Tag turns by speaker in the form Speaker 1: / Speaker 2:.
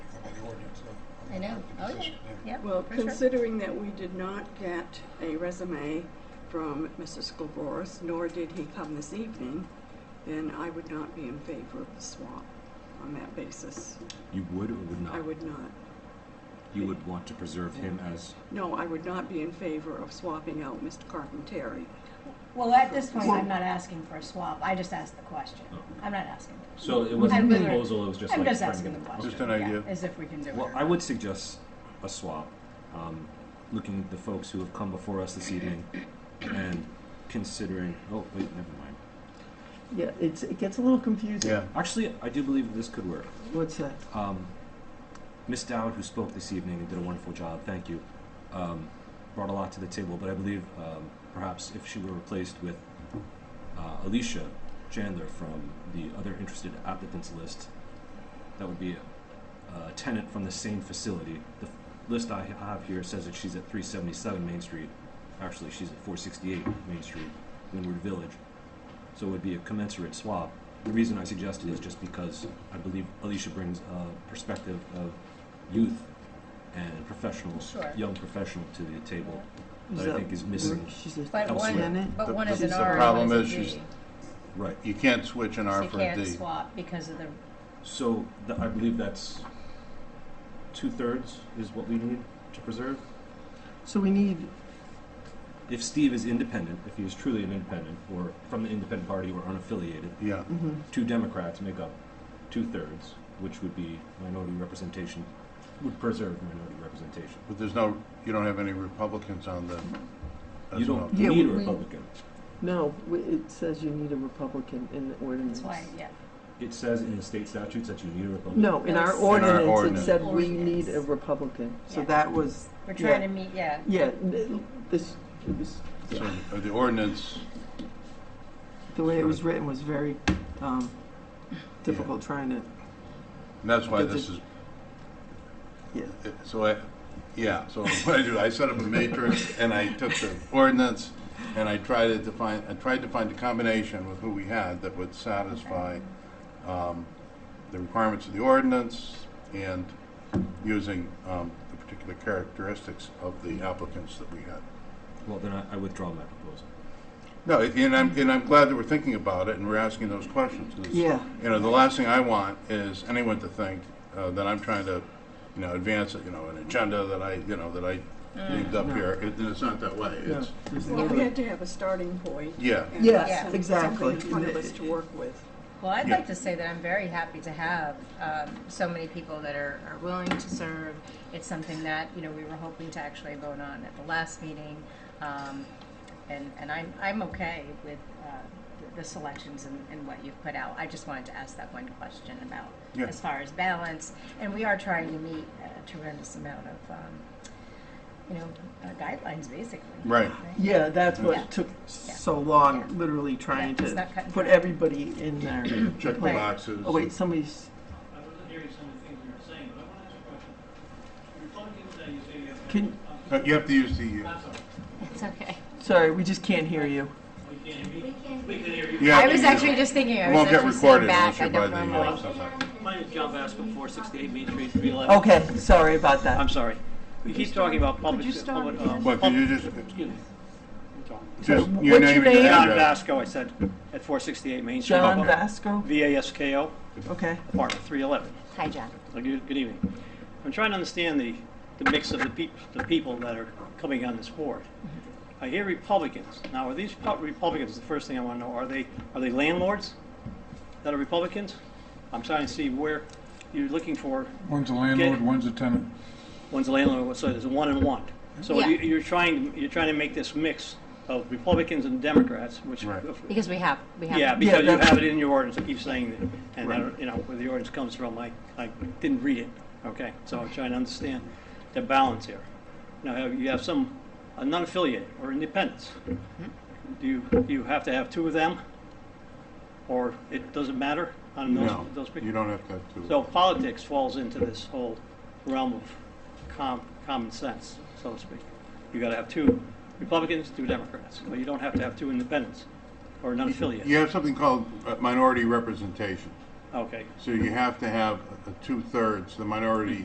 Speaker 1: Oh,
Speaker 2: Well,
Speaker 1: Sure.
Speaker 2: considering that we did not get a resume from Mr. Skolboris, nor did he come this evening, then I would not be in favor of the swap on that basis.
Speaker 3: You would or would not?
Speaker 2: I would not.
Speaker 3: You would want to preserve him as,
Speaker 2: No, I would not be in favor of swapping out Mr. Carpenteri.
Speaker 4: Well, at this point, I'm not asking for a swap, I just asked the question.
Speaker 5: Oh.
Speaker 4: I'm not asking.
Speaker 6: So it wasn't
Speaker 4: I'm
Speaker 6: a
Speaker 4: literally-
Speaker 6: proposal, it was just like.
Speaker 4: I'm just
Speaker 6: trying to
Speaker 4: asking the
Speaker 6: get-
Speaker 4: question.
Speaker 6: okay.
Speaker 5: Just an idea.
Speaker 4: Yeah, As if we can do it.
Speaker 3: well,
Speaker 4: or
Speaker 3: I
Speaker 4: not.
Speaker 3: would suggest a swap. Um, looking at the folks who have come before us this evening and considering, oh, wait, never mind.
Speaker 7: Yeah, it's, it gets a little confusing.
Speaker 5: Yeah.
Speaker 3: Actually, I do believe this could work.
Speaker 7: What's that?
Speaker 3: Um, Miss Dowd, who spoke this evening and did a wonderful job, thank you, um, brought a lot to the table. But I believe um, perhaps if she were replaced with uh, Alicia Chandler from the other interested applicants list, that would be a, a tenant from the same facility. The f- list I ha- have here says that she's at 377 Main Street. Actually, she's at 468 Main Street, Windward Village. So it would be a commensurate swap. The reason I suggested is just because I believe Alicia brings a perspective of youth and professional,
Speaker 1: Sure.
Speaker 3: young professional to the table
Speaker 7: Is
Speaker 3: that I
Speaker 7: that
Speaker 3: think is missing.
Speaker 7: She's a
Speaker 1: But
Speaker 3: Elsewhere.
Speaker 1: one, but
Speaker 5: The-
Speaker 1: one is an
Speaker 5: the
Speaker 1: R and
Speaker 5: problem
Speaker 1: one is
Speaker 5: is
Speaker 1: a
Speaker 5: she's-
Speaker 1: D.
Speaker 3: Right.
Speaker 5: You can't switch an
Speaker 1: So
Speaker 5: R
Speaker 1: you
Speaker 5: for a
Speaker 1: can't
Speaker 5: D.
Speaker 1: swap because of the,
Speaker 3: So th- I believe that's two thirds is what we need to preserve.
Speaker 7: So we need,
Speaker 3: If Steve is independent, if he is truly an independent or from the independent party or unaffiliated,
Speaker 5: Yeah,
Speaker 7: mhm.
Speaker 3: two Democrats make up two thirds, which would be minority representation, would preserve minority representation.
Speaker 5: but there's no, you don't have any Republicans on the,
Speaker 3: Mm-hmm. you
Speaker 5: as well.
Speaker 3: don't
Speaker 7: Yeah,
Speaker 3: need a
Speaker 7: we-
Speaker 3: Republican.
Speaker 7: no, w- it says you need a Republican in the ordinance.
Speaker 1: that's why, yeah.
Speaker 3: It says in the state statutes that you need a Republican.
Speaker 7: No, in our
Speaker 1: In our
Speaker 7: ordinance,
Speaker 5: ordinance.
Speaker 7: it said we need
Speaker 1: Ordinance.
Speaker 7: a Republican. So
Speaker 1: Yeah.
Speaker 7: that was,
Speaker 1: We're
Speaker 7: Yeah.
Speaker 1: trying to meet, yeah.
Speaker 7: yeah, th- this, it was,
Speaker 5: So uh, the ordinance,
Speaker 7: the way it was written was very um, difficult trying to,
Speaker 5: and that's why
Speaker 7: Does
Speaker 5: this is,
Speaker 7: yeah.
Speaker 5: it- so I, yeah, so what I do, I set up a matrix and I took the ordinance and I tried to define, I tried to find a combination with who we had that would satisfy um, the requirements of the ordinance and using um, the particular characteristics of the applicants that we had.
Speaker 3: Well, then I, I withdraw my proposal.
Speaker 5: No, and I'm, and I'm glad that we're thinking about it and we're asking those questions. 'cause,
Speaker 7: Yeah.
Speaker 5: You know, the last thing I want is anyone to think uh, that I'm trying to, you know, advance, you know, an agenda that I, you know, that I leaved up
Speaker 7: No.
Speaker 5: here. It- And it's not that way.
Speaker 7: No,
Speaker 5: It's,
Speaker 7: there's
Speaker 2: Well,
Speaker 7: no-
Speaker 2: we had to have a starting point.
Speaker 5: yeah,
Speaker 2: and
Speaker 7: Yes,
Speaker 2: some- something
Speaker 7: exactly.
Speaker 2: in front of us to work with.
Speaker 1: Well, I'd
Speaker 5: Yeah.
Speaker 1: like to say that I'm very happy to have um, so many people that are, are willing to serve. It's something that you know we were hoping to actually vote on at the last meeting, um, and and I'm I'm okay with uh, the- the selections and, and what you've put out. I just wanted to ask that one question about
Speaker 5: Yeah.
Speaker 1: as far as balance, and we are trying to meet a tremendous amount of um, you know uh, guidelines basically.
Speaker 5: right.
Speaker 7: Yeah, that's
Speaker 1: Yeah.
Speaker 7: what took so long, literally trying
Speaker 1: Yeah, it's
Speaker 7: to
Speaker 1: not cut and
Speaker 7: put
Speaker 1: dry.
Speaker 7: everybody in there.
Speaker 5: Check the
Speaker 1: Right.
Speaker 5: boxes.
Speaker 7: Oh, wait, somebody's,
Speaker 8: I wasn't hearing some of the things you were saying, but I want to ask a question. Republicans, uh, you say you have.
Speaker 7: Can-
Speaker 5: Uh, You have to use the,
Speaker 8: I'm sorry,
Speaker 1: It's okay.
Speaker 7: sorry, we just can't hear you.
Speaker 8: we can't hear you. We can hear you.
Speaker 5: you have
Speaker 1: I
Speaker 5: to
Speaker 1: was
Speaker 5: use-
Speaker 1: actually just thinking. I
Speaker 5: It
Speaker 1: was
Speaker 5: won't get
Speaker 1: actually sitting
Speaker 5: recorded unless
Speaker 1: back. I
Speaker 5: you're by
Speaker 1: don't
Speaker 5: the,
Speaker 1: normally.
Speaker 5: uh, something.
Speaker 8: My name is John Bascom, four sixty-eight Main Street, three eleven.
Speaker 7: Okay, sorry about that.
Speaker 8: I'm sorry. We keep talking about public.
Speaker 2: you stop
Speaker 8: public, uh,
Speaker 2: again?
Speaker 5: What, could you just,
Speaker 8: Excuse me. I'm sorry.
Speaker 5: just
Speaker 7: what's
Speaker 5: your
Speaker 7: your
Speaker 5: name and
Speaker 7: name?
Speaker 5: your
Speaker 8: John
Speaker 5: address?
Speaker 8: Vasco, I said, at four sixty-eight Main Street.
Speaker 7: John Vasco?
Speaker 8: V A S K O,
Speaker 7: Okay.
Speaker 8: apartment three eleven.
Speaker 5: uh,
Speaker 1: Hi, John.
Speaker 8: Good good evening. I'm trying to understand the, the mix of the peop, the people that are coming on this board. I hear Republicans. Now, are these pu- Republicans, the first thing I want to know, are they, are they landlords that are Republicans? I'm trying to see where you're looking for,
Speaker 9: One's a landlord,
Speaker 8: Get-
Speaker 9: one's a tenant.
Speaker 8: one's a landlord, so there's one and one. So
Speaker 1: Yeah.
Speaker 8: you- you're trying, you're trying to make this mix of Republicans and Democrats, which.
Speaker 5: Right.
Speaker 1: Because we have, we have.
Speaker 8: Yeah, because you
Speaker 7: that's-
Speaker 8: have it in your ordinance, I keep saying that, and I don't, you know, where the ordinance comes from, I, I didn't read it, okay? So I'm trying to understand the balance here. Now, have- you have some, a non-affiliated or independents. Do you, do you have to have two of them? Or it doesn't matter on those,
Speaker 5: No,
Speaker 8: those people?
Speaker 5: you don't have to have two.
Speaker 8: So politics falls into this whole realm of com, common sense, so to speak. You gotta have two Republicans, two Democrats, Well, you don't have to have two independents or non-affiliated.
Speaker 5: You have something called uh, minority representation.
Speaker 8: Okay.
Speaker 5: So you have to have a- a two-thirds, the minority